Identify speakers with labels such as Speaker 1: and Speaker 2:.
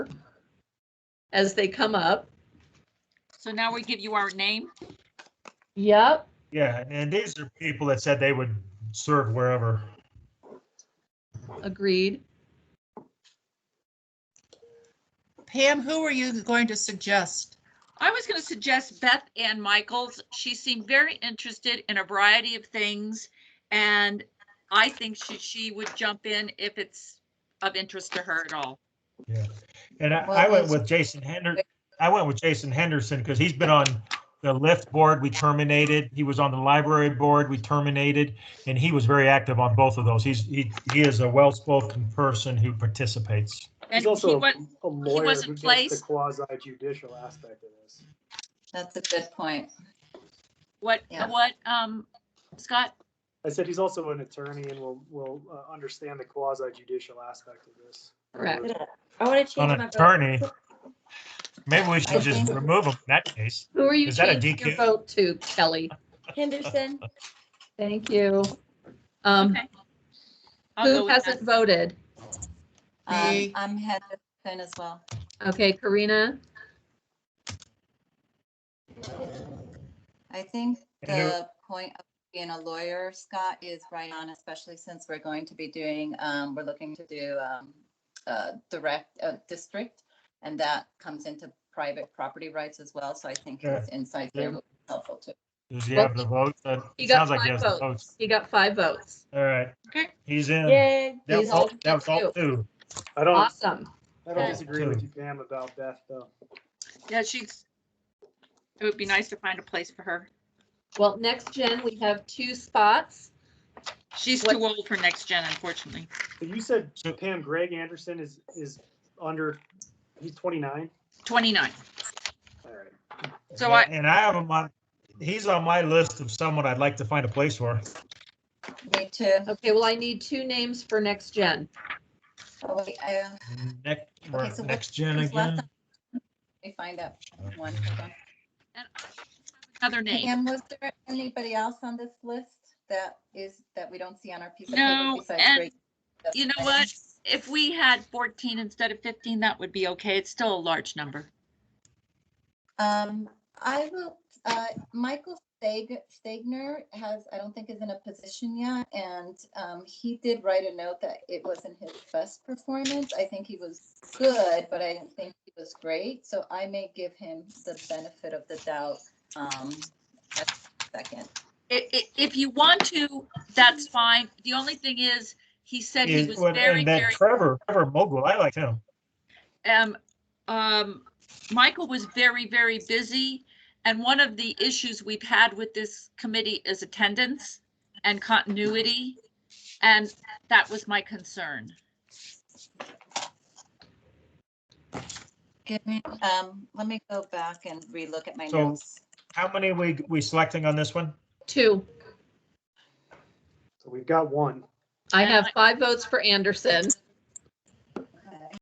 Speaker 1: as they come up.
Speaker 2: So now we give you our name.
Speaker 1: Yep.
Speaker 3: Yeah, and these are people that said they would serve wherever.
Speaker 1: Agreed.
Speaker 4: Pam, who are you going to suggest?
Speaker 2: I was going to suggest Beth Ann Michaels. She seemed very interested in a variety of things. And I think she, she would jump in if it's of interest to her at all.
Speaker 3: And I,
Speaker 5: Well,
Speaker 3: I went
Speaker 5: it's-
Speaker 3: with Jason Henderson. I went with Jason Henderson because he's been on the lift board. We terminated. He was on the library board. We terminated, and he was very active on both of those. He's he, he is a well-spoken person who participates.
Speaker 2: And
Speaker 6: He's
Speaker 2: he
Speaker 6: also a
Speaker 2: was,
Speaker 6: a lawyer
Speaker 2: wasn't
Speaker 6: who gets
Speaker 2: placed.
Speaker 6: the quasi judicial aspect of this.
Speaker 5: That's a good point.
Speaker 2: what,
Speaker 5: Yeah.
Speaker 2: what, um, Scott?
Speaker 6: I said he's also an attorney and will, will uh, understand the quasi judicial aspect of this.
Speaker 1: Correct.
Speaker 7: I want to
Speaker 3: On
Speaker 7: change
Speaker 3: an
Speaker 7: my vote.
Speaker 3: attorney, maybe we
Speaker 5: I
Speaker 3: should just
Speaker 5: think-
Speaker 3: remove him in that case.
Speaker 1: Who are you
Speaker 3: Is that a
Speaker 1: changing your
Speaker 3: DQ?
Speaker 1: vote to, Kelly?
Speaker 7: Henderson,
Speaker 1: Thank you. Um,
Speaker 2: Okay. I'll go
Speaker 1: who
Speaker 2: with
Speaker 1: hasn't
Speaker 2: that.
Speaker 1: voted?
Speaker 5: Um,
Speaker 4: Me.
Speaker 5: I'm Henderson as well.
Speaker 1: Okay, Karina,
Speaker 5: I think
Speaker 3: And there-
Speaker 5: the point of being a lawyer, Scott, is right on, especially since we're going to be doing, um, we're looking to do, um, uh, direct, uh, district, and that comes into private property rights as well, so I think his insight there will be helpful too.
Speaker 3: Does he have the votes? Uh,
Speaker 1: He
Speaker 3: It
Speaker 1: got
Speaker 3: sounds like he
Speaker 1: five
Speaker 3: has the
Speaker 1: votes.
Speaker 3: votes.
Speaker 1: you got five votes.
Speaker 3: All right.
Speaker 2: Okay.
Speaker 3: He's in.
Speaker 7: yay.
Speaker 3: That was
Speaker 1: He's
Speaker 3: all,
Speaker 1: all
Speaker 3: that was all
Speaker 1: two.
Speaker 3: two.
Speaker 6: I don't,
Speaker 1: Awesome.
Speaker 6: I don't
Speaker 3: Okay.
Speaker 6: disagree with you, Pam, about Beth, though.
Speaker 2: Yeah, she's, it would be nice to find a place for her.
Speaker 1: Well, next gen, we have two spots.
Speaker 2: She's
Speaker 1: What-
Speaker 2: too old for next gen, unfortunately.
Speaker 6: But you said
Speaker 3: So-
Speaker 6: Pam, Greg Anderson is, is under, he's 29?
Speaker 2: 29.
Speaker 6: All right.
Speaker 2: So I,
Speaker 3: And I have him on, he's on my list of someone I'd like to find a place for.
Speaker 5: Me too.
Speaker 1: Okay, well, I need two names for next gen.
Speaker 5: Oh, wait, I, uh,
Speaker 3: Next,
Speaker 5: Okay, so what-
Speaker 3: next gen
Speaker 5: who's left
Speaker 3: again.
Speaker 5: Let me find out one. hold on.
Speaker 2: another name.
Speaker 5: Pam, was there anybody else on this list that is, that we don't see on our piece of paper
Speaker 2: No,
Speaker 5: besides
Speaker 2: and
Speaker 5: Greg? That's
Speaker 2: you know
Speaker 5: fine.
Speaker 2: what? If we had 14 instead of 15, that would be okay. It's still a large number.
Speaker 5: Um, I will, uh, Michael Stag, Stagner has, I don't think is in a position yet, and, um, he did write a note that it wasn't his best performance. I think he was good, but I didn't think he was great, so I may give him the benefit of the doubt, um, at second.
Speaker 2: I- i- If you want to, that's fine. The only thing is, he said he was
Speaker 3: Is- well,
Speaker 2: very,
Speaker 3: And that
Speaker 2: very,
Speaker 3: Trevor, Trevor Mogul, I like him.
Speaker 2: um, um, Michael was very, very busy. And one of the issues we've had with this committee is attendance and continuity. And that was my concern.
Speaker 5: Give me, um, let me go back and relook at my
Speaker 3: So-
Speaker 5: notes.
Speaker 3: How many we, we selecting on this one?
Speaker 1: Two.
Speaker 6: So we've got one.
Speaker 1: I have five votes for Anderson.